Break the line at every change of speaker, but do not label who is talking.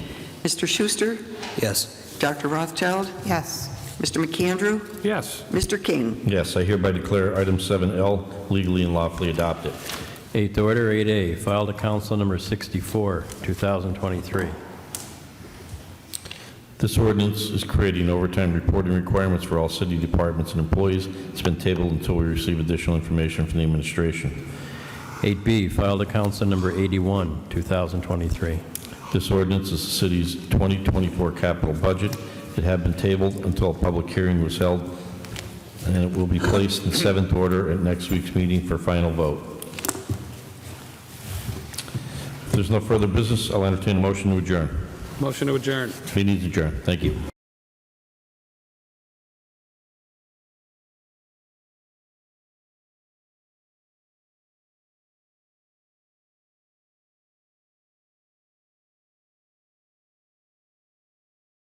Mr. Schuster,
Yes.
Dr. Rothschild,
Yes.
Mr. McAndrew,
Yes.
Mr. King.
Yes, I hereby declare item 7L legally and lawfully adopted.
Eighth order, 8A, filed to council number 64, 2023.
This ordinance is creating overtime reporting requirements for all city departments and employees. It's been tabled until we receive additional information from the administration.
8B, filed to council number 81, 2023.
This ordinance is the city's 2024 capital budget. It had been tabled until a public hearing was held, and it will be placed in seventh order at next week's meeting for final vote. If there's no further business, I'll entertain a motion to adjourn.
Motion to adjourn.
Meeting is adjourned. Thank you.